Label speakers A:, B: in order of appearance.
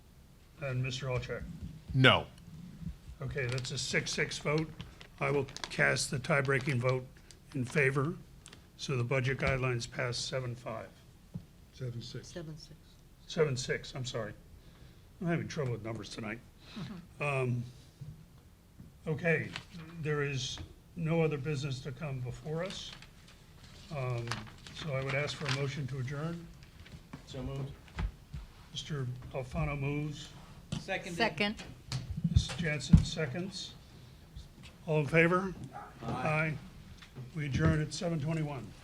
A: and Mr. Alcheck.
B: No.
A: Okay, that's a six-six vote. I will cast the tie-breaking vote in favor, so the budget guidelines pass seven-five,
C: Seven, six.
D: Seven, six.
A: seven-six, I'm sorry. I'm having trouble with numbers tonight. Um, Okay, there is no other business to come before us. Um, So I would ask for a motion to adjourn.
E: So moved.
A: Mr. Alfano moves.
E: Seconded.
D: Second.
A: Mrs. Jansen seconds. All in favor? Aye. We adjourn at seven twenty-one.